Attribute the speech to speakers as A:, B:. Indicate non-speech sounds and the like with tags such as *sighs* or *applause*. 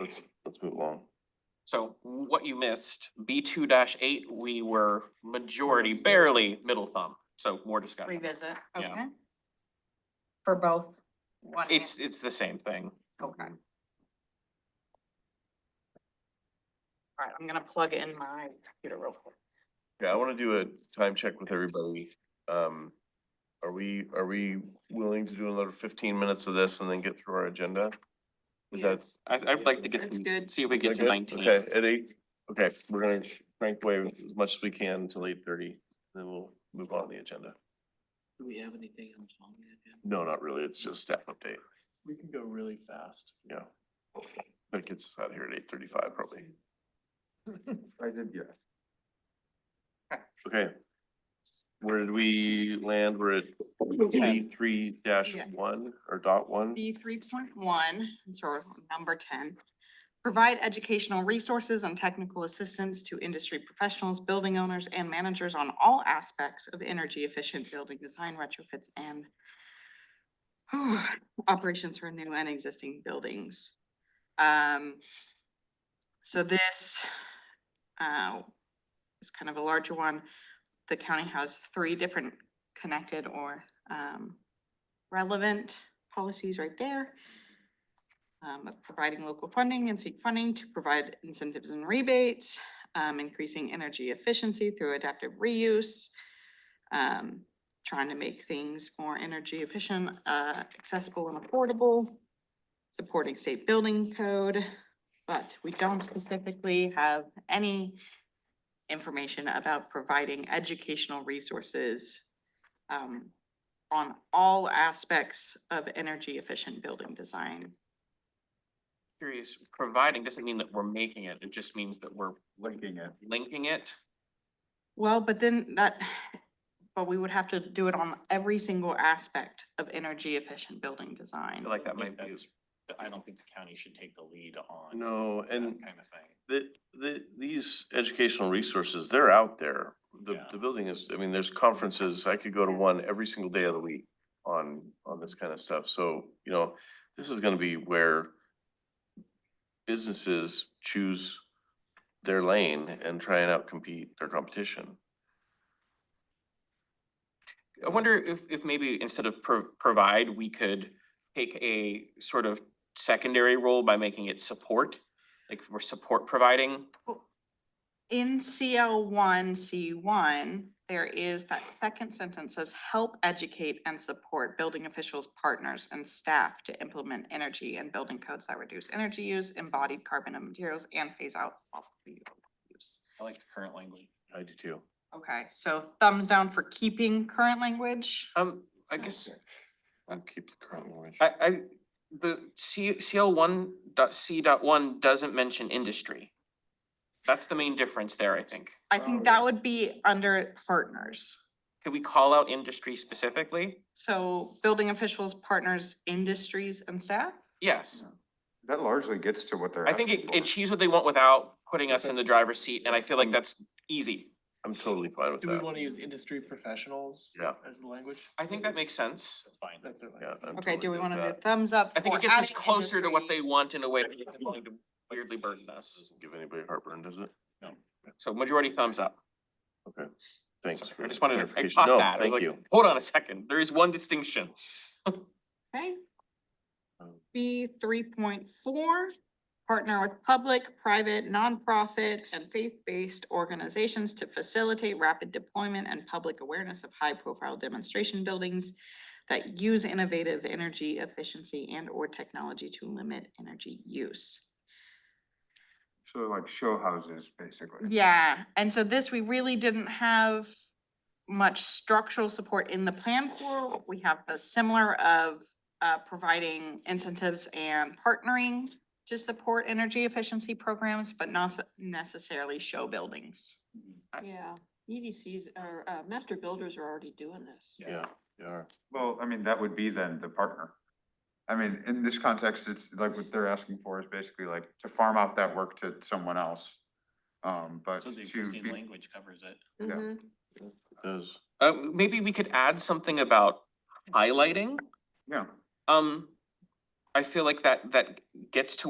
A: Let's, let's move along.
B: So what you missed, B two eight, we were majority barely middle thumb, so more discussion.
C: revisit,
B: Yeah.
C: okay? For both? one and-
B: It's, it's the same thing.
C: Okay. All right, I'm gonna plug in my computer real quick.
A: Yeah, I wanna do a time check with everybody. Um, are we, are we willing to do another fifteen minutes of this and then get through our agenda? Is that?
B: I, I'd like to get,
C: That's
B: to
C: good.
B: see if we get
A: is
B: to
A: that
B: nineteen.
A: good? Okay, at eight, okay, we're gonna crank away as much as we can until eight thirty, then we'll move on the agenda.
D: Do we have anything else on the agenda?
A: No, not really, it's just staff update,
D: We can go really fast.
A: yeah. That gets us out of here at eight thirty-five probably.
E: I did, yeah.
A: Okay. Where did we land? We're at B three dash
C: Yeah.
A: one or dot one?
C: B three point one, sort of number ten. Provide educational resources and technical assistance to industry professionals, building owners, and managers on all aspects of energy efficient building design retrofits and *sighs* operations for new and existing buildings. Um, so this, uh, is kind of a larger one. The county has three different connected or, um, relevant policies right there. Um, of providing local funding and seek funding to provide incentives and rebates, um, increasing energy efficiency through adaptive reuse. Um, trying to make things more energy efficient, uh, accessible and affordable. Supporting state building code, but we don't specifically have any information about providing educational resources. Um, on all aspects of energy efficient building design.
B: Curious, providing doesn't mean that we're making it, it just means that we're
E: Linking it.
B: linking it.
C: Well, but then that, *sighs* but we would have to do it on every single aspect of energy efficient building
B: I
C: design.
B: feel like that
F: I
B: might
F: think
B: be,
F: that's, I don't think the county should take the lead on
A: No,
F: that
A: and
F: kind of thing.
A: the, the, these educational resources, they're out there. The,
F: Yeah.
A: the building is, I mean, there's conferences, I could go to one every single day of the week on, on this kind of stuff. So, you know, this is gonna be where businesses choose their lane and try and outcompete their competition.
B: I wonder if, if maybe instead of pro- provide, we could take a sort of secondary role by making it support. Like we're support providing,
C: In CL one, C one, there is that second sentence says, help educate and support building officials, partners and staff to implement energy and building codes that reduce energy use, embodied carbon and materials and phase out fossil fuel use.
F: I like the current language.
A: I do too.
C: Okay, so thumbs down for keeping current language.
B: um, I guess.
A: I'll keep the current language.
B: I, I, the C, CL one dot C dot one doesn't mention industry. That's the main difference there, I think.
C: I think that would be under partners.
B: Could we call out industry specifically?
C: So building officials, partners, industries and staff?
B: Yes,
E: That largely gets to what they're.
B: I think
E: asking
B: it
E: for.
B: achieves what they want without putting us in the driver's seat, and I feel like
A: Mm.
B: that's easy.
A: I'm totally fine with
D: Do we
A: that.
D: want to use industry professionals?
A: Yeah.
D: As the language?
B: I think that makes sense.
F: That's fine.
D: That's their
A: Yeah,
D: language.
A: I'm
C: Okay, do
A: totally
C: we
A: good
C: wanna
A: with
C: do
A: that.
C: thumbs up
B: I think
C: for
B: it gets us
C: adding
B: closer to what
C: industry?
B: they want in a way that isn't going to weirdly burden us.
A: Doesn't Give anybody heartburn, does it?
B: So majority thumbs up.
A: Thanks.
B: Sorry,
A: for
B: I
A: the
B: just wanted to, I
A: clarification.
B: caught
A: No,
B: that. I was
A: Thank
B: like,
A: you.
B: Hold on a second, there is one distinction.
C: Okay.
A: Um,
C: B three point four, partner with public, private, nonprofit, and faith-based organizations to facilitate rapid deployment and public awareness of high-profile demonstration buildings that use innovative energy efficiency and or technology to limit energy use.
E: So like show houses, basically.
C: Yeah, and so this, we really didn't have much structural support in the plan for. We have the similar of uh providing incentives and partnering to support energy efficiency programs, but not s- necessarily show buildings.
G: Yeah, EDCs are, uh, master builders are already doing this.
A: Yeah, they are.
E: Well, I mean, that would be then the partner. I mean, in this context, it's like what they're asking for is basically like to farm out that work to someone else. Um, but
F: So the
E: to
F: existing
E: be,
F: language covers it.
E: Yeah.
G: Mhm.
A: Does,
B: Uh, maybe we could add something about highlighting.
E: yeah.
B: Um, I feel like that, that gets to